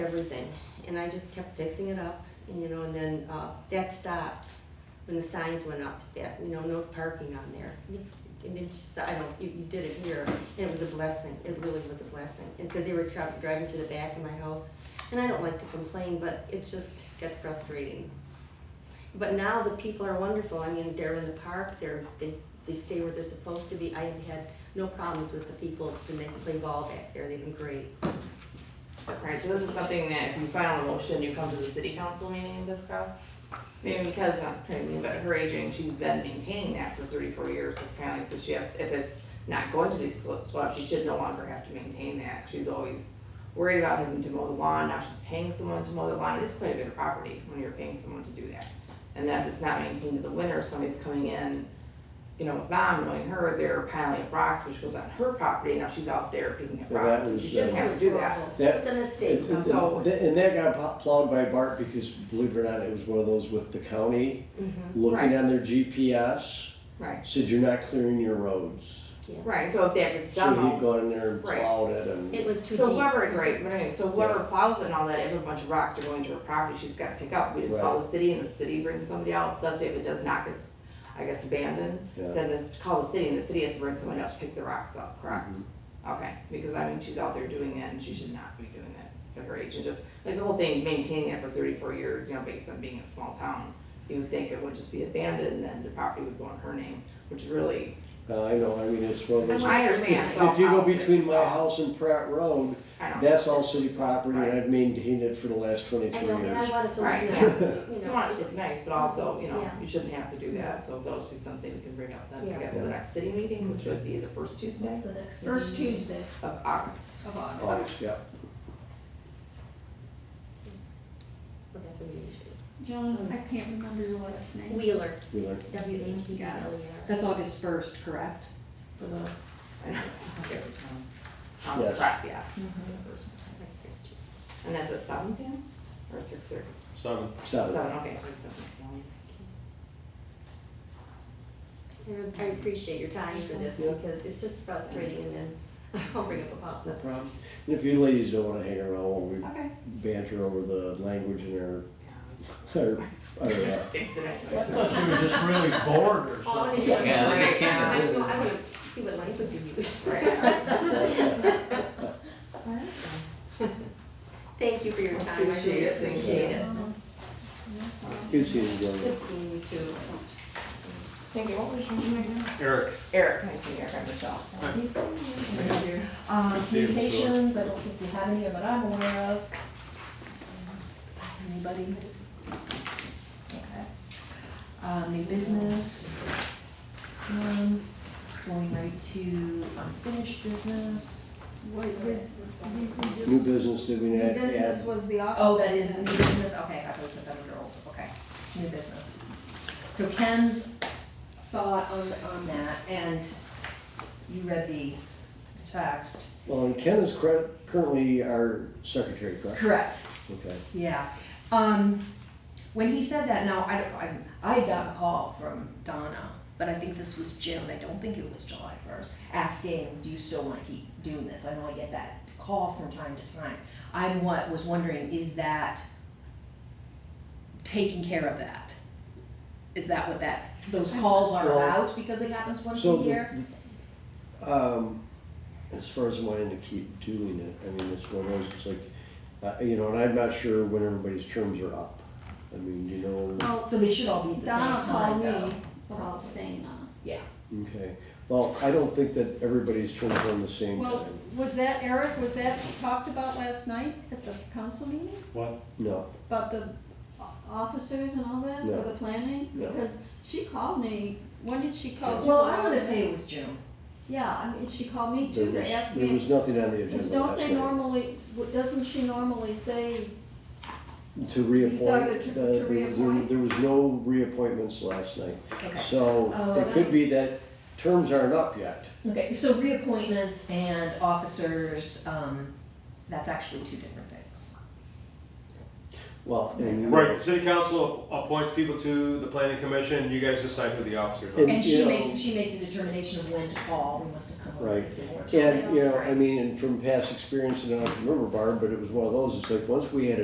everything, and I just kept fixing it up, and you know, and then, uh, that stopped when the signs went up, that, you know, no parking on there. And it's just, I don't, you, you did it here, and it was a blessing, it really was a blessing, and, cause they were tra- driving to the back of my house, and I don't like to complain, but it just got frustrating. But now the people are wonderful, I mean, they're in the park, they're, they, they stay where they're supposed to be, I have had no problems with the people, and they play ball back there, they've been great. Alright, so this is something that if you file a motion, you come to the city council meeting and discuss. Maybe because, uh, I mean, but her aging, she's been maintaining that for thirty-four years, it's kinda like, does she have, if it's not going to be sw- swept, she should no longer have to maintain that, she's always worried about having to mow the lawn, now she's paying someone to mow the lawn, it is quite a bit of property when you're paying someone to do that. And that if it's not maintained in the winter, somebody's coming in, you know, with mom knowing her, they're piling up rocks, which goes on her property, now she's out there picking up Well, rocks, that and was, she shouldn't It uh, have was to do that. horrible. That- It's a mistake. It- it's- So- And that got pl- plowed by Bart because, believe it or not, it was one of those with the county Mhm. looking Right. on their GPS, Right. said you're not clearing your roads. Right, so if that gets So done, he'd all- gone in there and Right. plowed it and. It was too so deep. whoever, right, but anyway, so whoever plows it and all that, if a bunch of rocks are going to her property, she's gotta pick up, we just call the city and the city brings somebody out, does it, if it does not, it's, I guess abandoned, Yeah. then it's call the city and the city has to bring someone else to pick the rocks up, correct? Mm-hmm. Okay, because I mean, she's out there doing it and she should not be doing it at her age, and just, like the whole thing, maintaining it for thirty-four years, you know, based on being a small town, you would think it would just be abandoned and then the property would go in her name, which really, Uh, I know, I mean, it's one of those. I understand. it's all If you go politics, between my so house and Pratt Road, I don't. that's all city property and Right. I've maintained it for the last I twenty-three know, and I years. wanted to, Right. leave this, you You know, want it to look nice, but also, you know, Yeah. you shouldn't have to do that, so that'll just be something we can bring up then, Yeah. I guess, at the next city meeting, which would be the first Tuesday That's the next. First meeting Tuesday of August. of August. Oh, yeah. but that's what we usually. Joan, I can't remember your last name. Wheeler, we learned. W H E L E R. That's August first, correct? For the, I know, it's not every time. Um, Yes. correct, yes, it's the Mhm. first. And that's at seven P M or six thirty? Seven. Seven. Seven, okay, so we don't make I appreciate your time for this because it's just frustrating and then I'll bring up a No problem. problem. And if you ladies don't wanna hang around while we the money. Okay. banter over the language in our, our, our, uh, Stick to that. I thought you were just really bored or Oh, something. yeah. Yeah, they I, just can't. you know, I wanna see what language you use. uh, All right. Thank you for your time, I Appreciate really it. appreciate it. Uh-huh. good seeing you, Joey. Good seeing you too. Thank you, what was your name? Eric, Eric, nice to meet you, Eric, I'm Michelle. Thank um, See you before. communications, I don't think we have any that I'm aware of. Anybody? Okay. Um, new business. Um, going right to unfinished business. New business, did we add? Business was the office. Oh, that is new business, okay, I thought that that under old, okay, new business. So Ken's thought on, on that, and you read the text. Well, and Ken is cur- currently our secretary, correct? Correct. Okay. Yeah, um, when he said that, now, I don't, I, I got a call from Donna, but I think this was June, I don't think it was July first, asking, do you still wanna keep doing this? I know I get that call from time to time. I'm what, was wondering, is that taking care of that? Is that what that, those calls are Well- about, because it happens once So a the- year? Um, as far as wanting to keep doing it, I mean, it's one of those, it's like, uh, you know, and I'm not sure when everybody's terms are up. I mean, you know, So they should all be at the Oh, Donna same time called though. me about staying on. Yeah, okay. Well, I don't think that everybody's terms are on the same Well, time. was that, Eric, was that talked about last night at the council meeting? what? No, About the o- officers and all that, No. for the planning? No. Because she called me, when did she Oh, call you? well, I wanna say it was June. Yeah, I mean, she called me there too was, to ask there was me, nothing on the because agenda don't last they night. normally, w- doesn't she normally say To Sorry, reappoint, to- uh, to there- there, reappoint? there was no reappointments last night. Okay. So Oh, it could be that terms aren't up yet. Okay, so reappointments and officers, um, that's actually two different things. Well, and you know- Right, the city council appoints people to the planning commission, you guys decide who the officers are. And, And you she know- makes, she makes a determination of when to call, we must have come up Right. with similar. And, you know, I mean, and from past experience, and I don't remember Barb, but it was one of those, it's like, once we had a